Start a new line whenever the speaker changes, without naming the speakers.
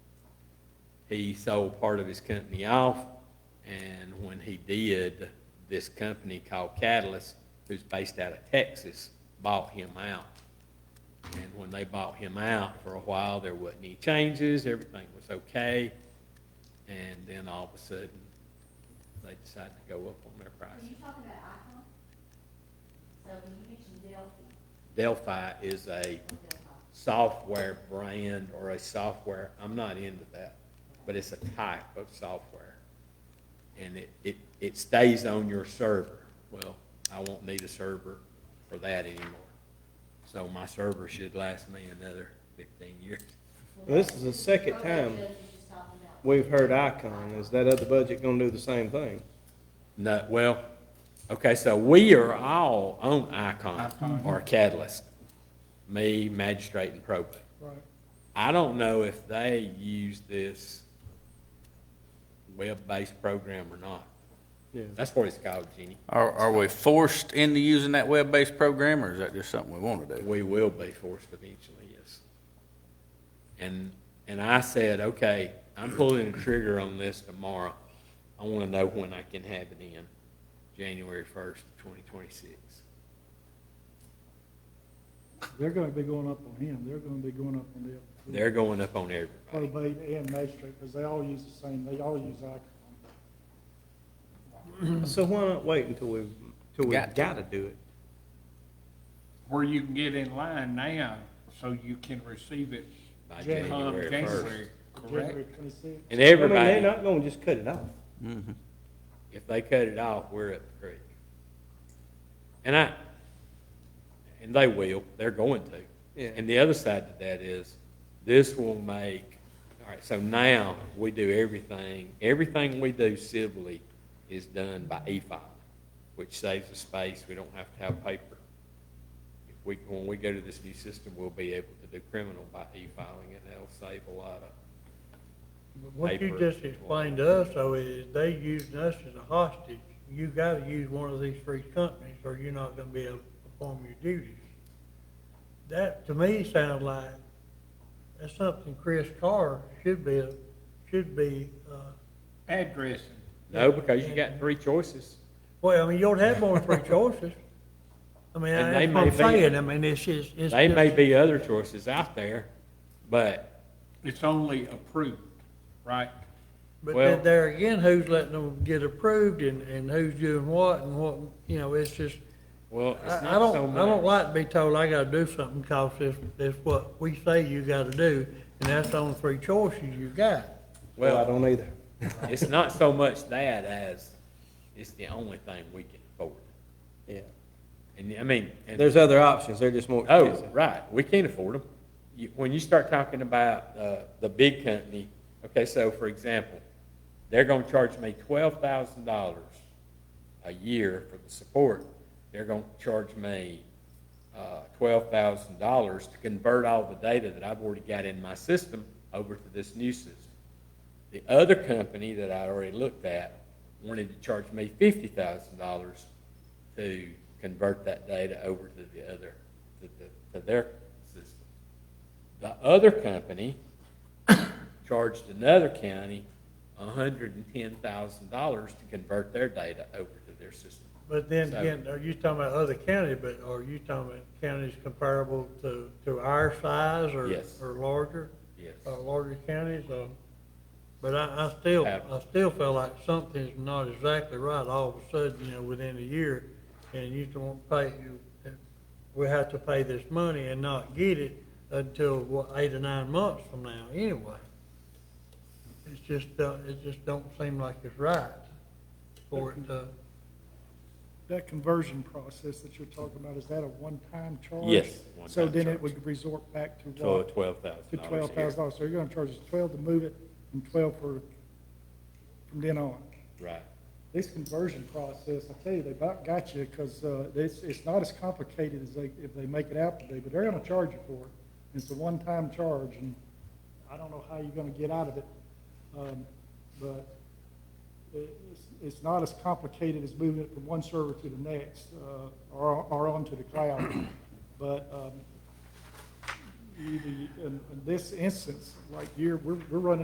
he sold part of his company off, and when he did, this company called Catalyst, who's based out of Texas, bought him out. And when they bought him out, for a while, there wasn't any changes, everything was okay, and then all of a sudden, they decided to go up on their
Are
prices.
you talking about Icon? So when you mentioned Delphi,
Delphi is a
or Delphi,
software brand or a software, I'm not into that, but it's a type of software. And it, it, it stays on your server. Well, I won't need a server for that anymore. So my server should last me another fifteen years.
Well, This is the second time
Judge was just talking about,
we've heard Icon. Is that other budget gonna do the same thing?
No, well, okay, so we are all on Icon or Catalyst. Me, magistrate and probate.
Right.
I don't know if they use this web-based program or not.
Yeah.
That's what it's called, Jeannie.
Are, are we forced into using that web-based program, or is that just something we want to do?
We will be forced eventually, yes. And, and I said, okay, I'm pulling the trigger on this tomorrow. I want to know when I can have it in, January first, twenty twenty-six.
They're gonna be going up on him, they're gonna be going up on them.
They're going up on everybody.
Probate and magistrate, because they all use the same, they all use Icon.
So why not wait until we've, till we've
Got
gotta do it?
where you can get in line now, so you can receive it
By
Jan-
come
January first.
January,
January
correct?
twenty-sixth.
And
I mean, they're
everybody,
not gonna just cut it off.
Mhm.
if they cut it off, we're up the creek. And I, and they will, they're going to.
Yeah.
And the other side to that is, this will make, all right, so now we do everything, everything we do civilly is done by e-filing, which saves the space, we don't have to have paper. If we, when we go to this new system, we'll be able to do criminal by e-filing, and that'll save a lot of,
But What you
paper
just
as well.
explained to us, though, is they using us as a hostage. You gotta use one of these three companies, or you're not gonna be able to perform your duties. That, to me, sounds like, that's something Chris Carr should be, should be, uh,
Addressing,
no, because you got three choices.
well, I mean, you don't have more than three choices. I mean,
And
that's
they
what I'm
may be-
saying, I mean, it's just, it's
They may
just-
be other choices out there, but
it's only approved, right?
But
Well-
then there again, who's letting them get approved and, and who's doing what and what, you know, it's just,
well,
I,
it's
I
not so
don't, I don't
much.
like to be told I gotta do something, cause it's, it's what we say you gotta do, and that's the only three choices you got.
Well, I
Well,
don't either.
it's not so much that as it's the only thing we can afford.
Yeah.
And I mean, and-
There's other options. They're just more
oh,
expensive.
right, we can't afford them. You, when you start talking about, uh, the big company, okay, so for example, they're gonna charge me twelve thousand dollars a year for the support. They're gonna charge me, uh, twelve thousand dollars to convert all the data that I've already got in my system over to this new system. The other company that I already looked at wanted to charge me fifty thousand dollars to convert that data over to the other, to, the- to their system. The other company charged another county hundred and ten thousand dollars to convert their data over to their system.
But then
So-
again, are you talking about other county, but are you talking about counties comparable to, to our size or,
Yes.
or larger?
Yes.
Uh,
Oh,
larger counties, uh, but I, I still,
Have-
I still feel like something's not exactly right all of a sudden, you know, within a year. And you don't pay, you- we have to pay this money and not get it until, what, eight or nine months from now anyway. It's just, uh, it just don't seem like it's right for it to.
That conversion process that you're talking about, is that a one-time charge?
Yes,
So
one-time
then
charge.
it would resort back to
So
what?
twelve thousand
To
dollars.
twelve thousand dollars, so you're gonna charge us twelve to move it, and twelve for, from then on.
Right.
This conversion process, I tell you, they about got you, because, uh, it's, it's not as complicated as they, if they make it out to be, but they're gonna charge you for it. It's a one-time charge, and I don't know how you're gonna get out of it. Um, but it, it's, it's not as complicated as moving it from one server to the next, uh, or, or onto the cloud. But, um, you- the- in, in this instance, like here, we're, we're running